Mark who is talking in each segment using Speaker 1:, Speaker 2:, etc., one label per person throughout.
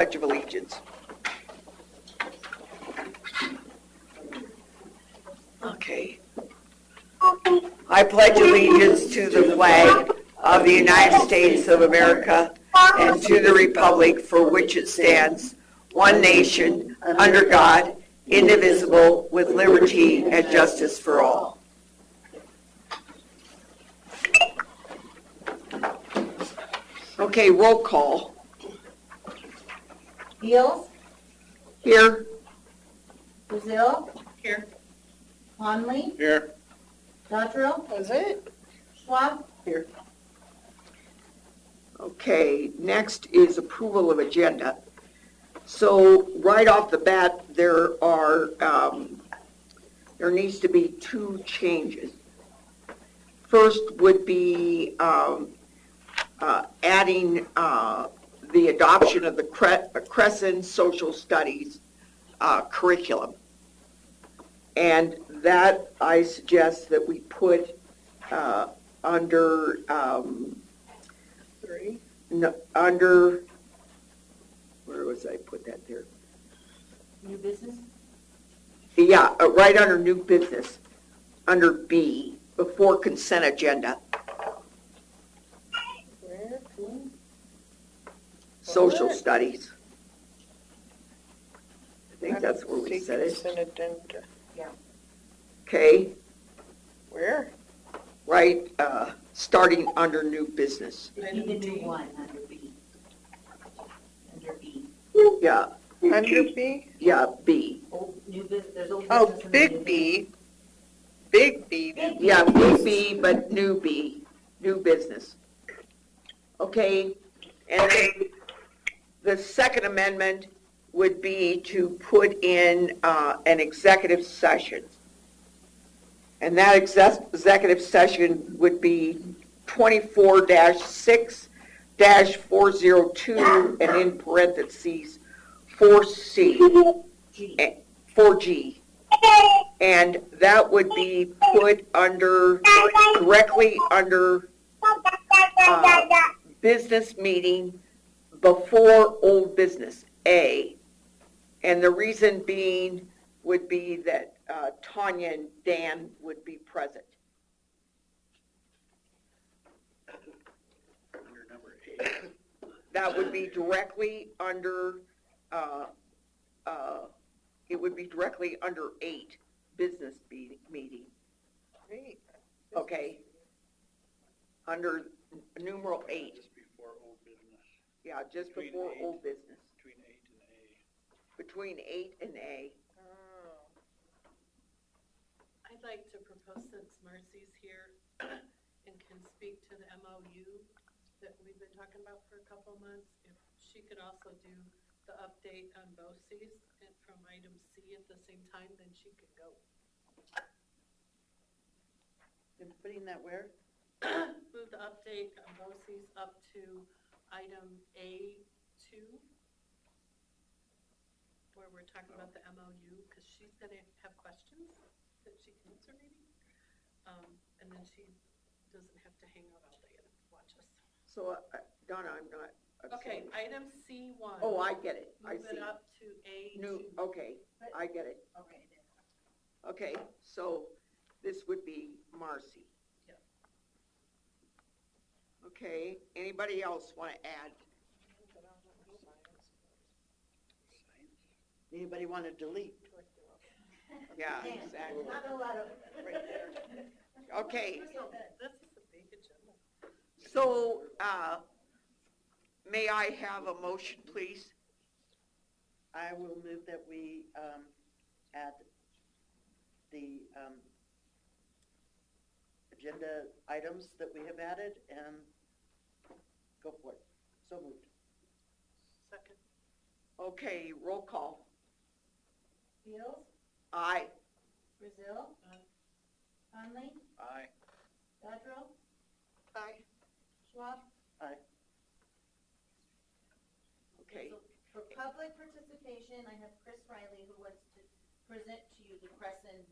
Speaker 1: Pledge of Allegiance. Okay. I pledge allegiance to the flag of the United States of America and to the republic for which it stands, one nation, under God, indivisible, with liberty and justice for all. Okay, roll call.
Speaker 2: Beals,
Speaker 1: Here.
Speaker 2: Brazil.
Speaker 1: Here.
Speaker 2: Conley,
Speaker 3: Here.
Speaker 2: Dodrill,
Speaker 1: That's it.
Speaker 2: Schwab,
Speaker 1: Okay, next is approval of agenda. So right off the bat, there are, um, there needs to be two changes. First would be um, uh, adding uh, the adoption of the Cre- uh, Crescent Social Studies uh, curriculum. And that, I suggest that we put uh, under um, no, under, where was I put that there?
Speaker 2: new business.
Speaker 1: Yeah, uh, right under new business, under B, before consent agenda, social
Speaker 4: Alright.
Speaker 1: studies. I think that's where we
Speaker 4: Take
Speaker 1: said it.
Speaker 4: consent agenda.
Speaker 1: Okay,
Speaker 4: Where?
Speaker 1: right, uh, starting under new business.
Speaker 2: They need a new one under B. Under B.
Speaker 1: Yeah,
Speaker 4: Under B?
Speaker 1: yeah, B.
Speaker 2: Old, new business, there's old business.
Speaker 4: Oh,
Speaker 2: and then new
Speaker 4: big B. Big B.
Speaker 2: business. Big B.
Speaker 1: Yeah, new B, but new B, new business. Okay, and then the second amendment would be to put in, uh, an executive session. And that exec- executive session would be twenty-four six four zero two, and in parentheses, four C,
Speaker 2: G.
Speaker 1: four G. And that would be put under, directly under uh, business meeting before old business, A. And the reason being would be that uh, Tanya and Dan would be present. That would be directly under, uh, uh, it would be directly under eight, business be- meeting,
Speaker 4: Great.
Speaker 1: okay? Under numeral eight.
Speaker 5: Just before old business,
Speaker 1: Yeah, just
Speaker 5: Between
Speaker 1: before
Speaker 5: eight.
Speaker 1: old business,
Speaker 5: between eight and A.
Speaker 1: between eight and A.
Speaker 4: Oh.
Speaker 6: I'd like to propose since Marcy's here and can speak to the MOU that we've been talking about for a couple of months, if she could also do the update on BOCES and from item C at the same time, then she could go.
Speaker 4: Been putting that where?
Speaker 6: Move the update on BOCES up to item A two, where we're talking about the MOU, because she's gonna have questions that she can answer maybe. Um, and then she doesn't have to hang out all day and watch us.
Speaker 1: So, uh, Donna, I'm not. I'm
Speaker 6: Okay,
Speaker 1: sorry.
Speaker 6: item C one.
Speaker 1: Oh, I get it, I
Speaker 6: Move
Speaker 1: see.
Speaker 6: it up to A
Speaker 1: New,
Speaker 6: two.
Speaker 1: okay, I get it.
Speaker 2: Okay, then.
Speaker 1: Okay, so this would be Marcy.
Speaker 6: Yeah.
Speaker 1: Okay, anybody else want to add?
Speaker 4: Anybody want to delete?
Speaker 1: Yeah,
Speaker 2: Dan.
Speaker 1: exactly.
Speaker 2: Not a lot of, right there.
Speaker 1: Okay,
Speaker 6: There's no- This is a big agenda.
Speaker 1: so, uh, may I have a motion, please?
Speaker 7: I will move that we um, add the um, agenda items that we have added and go for it. So moved.
Speaker 6: Second,
Speaker 1: Okay, roll call.
Speaker 2: Beals,
Speaker 1: Aye.
Speaker 2: Brazil,
Speaker 6: Aye.
Speaker 2: Conley,
Speaker 5: Aye.
Speaker 2: Dodrill,
Speaker 1: Aye.
Speaker 2: Schwab.
Speaker 1: Okay,
Speaker 2: So For public participation, I have Chris Riley who wants to present to you the Crescent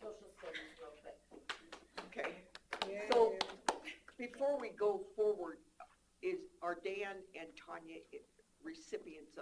Speaker 2: Social Studies real quick.
Speaker 1: okay. So, before we go forward, is, are Dan and Tanya i- recipients